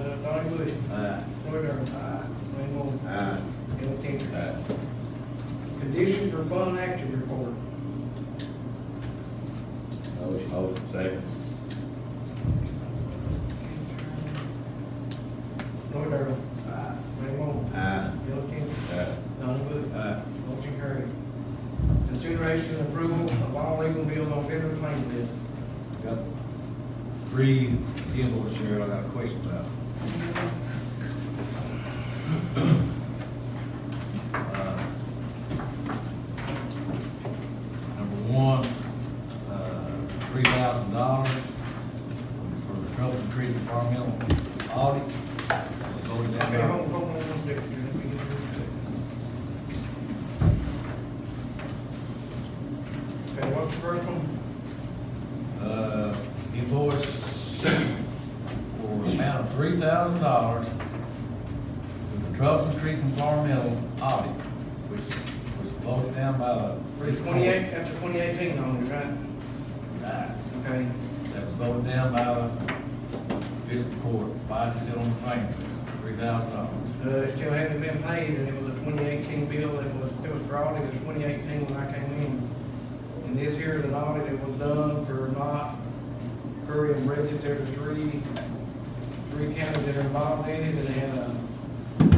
Moody, Aye. Woodard. Aye. Rainbow. Aye. Bill Tinter. Aye. Condition for fund active report. Motion. Motion. Second. Woodard. Aye. Rainbow. Aye. Bill Tinter. Aye. Donnie Bush. Aye. Motion carried. Consideration and approval of all legal bills on federal claim list. Got three invoices here I got a question about. Uh, Number one, uh, three thousand dollars for the Troubles and Creek Environmental Audit. Voted down Okay, there. hold, hold on one second. here. Let me get this straight. Okay, what's the first one? uh, invoice for an amount of three thousand dollars for the Troublesome Creek Environmental Audit, which was voted down by the. It's twenty-eight, after twenty eighteen on it, right? Right. Okay, That was voted down by the fiscal court, why is it still on the train three thousand dollars? uh, it still hasn't been paid, and it was a twenty eighteen bill, it was, it was fraud, it was twenty eighteen when I came in. And this here is an audit that was done for not Curry and Bridget, there were three, three counties that are involved in it, and they had a,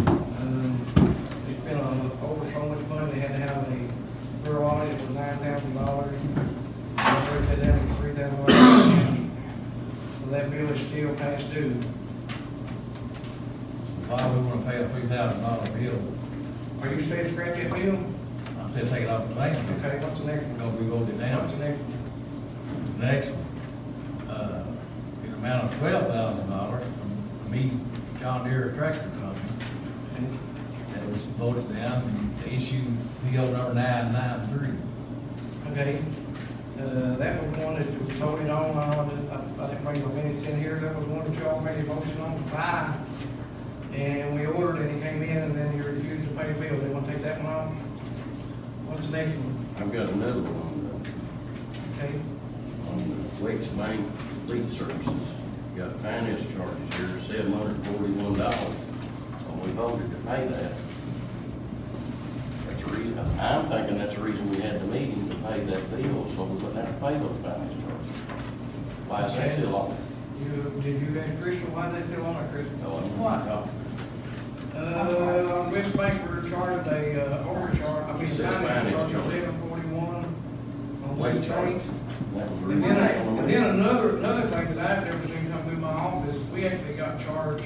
um, they spent on over so much money, they had to have a thorough audit, it was nine thousand dollars. And they said that was three thousand dollars. So that bill is still past due. Why we wanna pay a three thousand dollar bill? Are you saying scratch that bill? I said take it off the train Okay, because what's the next one? we voted it down. What's the next one? Next, one, uh, an amount of twelve thousand dollars from me, John Deere Tractor Company, that was voted down and the issue PO number nine nine three. Okay, uh, that was one that was voted on, I don't, I- I didn't bring my minutes in here, that was one that y'all made a motion on to buy. And we ordered it, it came in, and then you refused to pay the bill, they wanna take that one off? What's the next one? I've got another one on Okay, the, on the Lakes Main Fleet Services. Got finance charges here, seven hundred forty-one dollars, and we voted to pay that. That's a reason, I'm thinking that's the reason we had the meeting, to pay that bill, so we wouldn't have to pay those finance charges. Why is that still on? you, did you ask Crystal, why is that still on there, Crystal? No, I'm- What? Uh, on West Bank, we were charged a, uh, overcharge, I mean, It says finance finance charge of charge. eleven forty-one on Lake West charges. Bank. That was the And reason. then, and then another, another thing that I've never seen come through my office, we actually got charged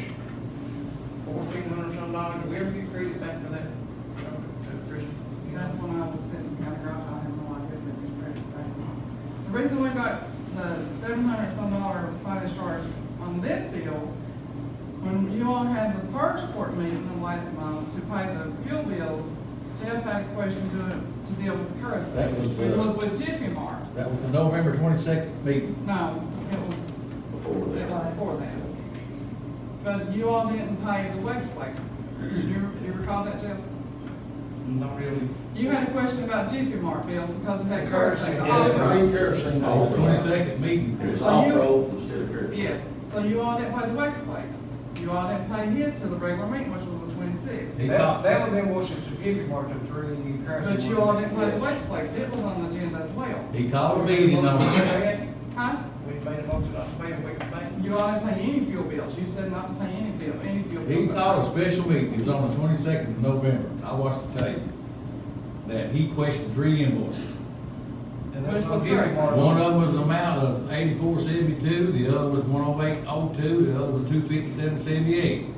fourteen hundred some dollars, Did we ever get credit back for that? Uh, Chris? That's when I was sitting kind of rough, I had no idea that was pressure The reason we got the seven hundred some dollar finance charge on this bill, when you all had the first court meeting the last month to pay the fuel bills, Jeff had a question to, to deal with That was kerosene, the- which was with Jiffy Mart. That was the November twenty-second meeting. No, it was Before It that. was before that. But you all didn't pay the Westplex. You, you recall that, Jeff? Not really. You had a question about Jiffy Mart bills because of that Kerosene, cursing. yeah, Yeah, kerosene. That was the twenty-second meeting. It was So you- off-road instead of kerosene. Yes, so you all didn't pay the Westplex. You all didn't pay it to the regular meeting, which was the twenty-sixth. He That, called, that was in Washington, if you marked them three, and you currency. But you all didn't pay the Westplex. It was on the agenda as well. he called a meeting on, Huh? We made a motion, not to pay it, we can pay. You all didn't pay any fuel bills. You said not to pay any bill, any fuel bills. he called a special meeting, it was on the twenty-second of November, I watched the tape. That he questioned three invoices. And that Which was on Jiffy first? Mart. One of them was an amount of eighty-four seventy-two, the other was one oh eight oh two, the other was two fifty-seven seventy-eight.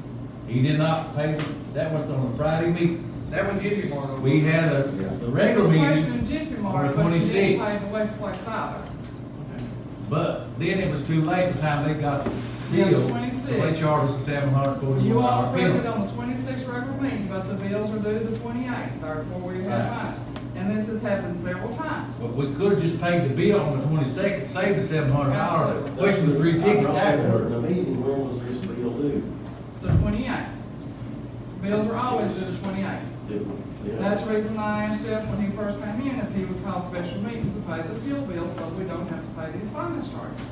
He did not pay, that was on a Friday meeting. That was if you marked. We had a, the It was regular questioned meeting, Jiffy on the Mart, but you didn't pay 26th. the Westplex either. but then it was too late by the time they got the Yeah, the bill. So 26. they charged us a seven hundred You forty-one all dollar approved it bill. on the twenty-sixth regular meeting, but the bills are due the twenty-eighth, therefore we have Right. time. And this has happened several times. But we could just paid the bill on the twenty-second, saved the seven hundred dollars, Absolutely. questioned the three tickets I brought up afterward. The meeting, when was this bill due? The twenty-eighth. Bills are always due the twenty-eighth. Didn't- yeah. That's the reason I asked Jeff when he first came in if he would call special meetings to pay the fuel bill so we don't have to pay these finance charges.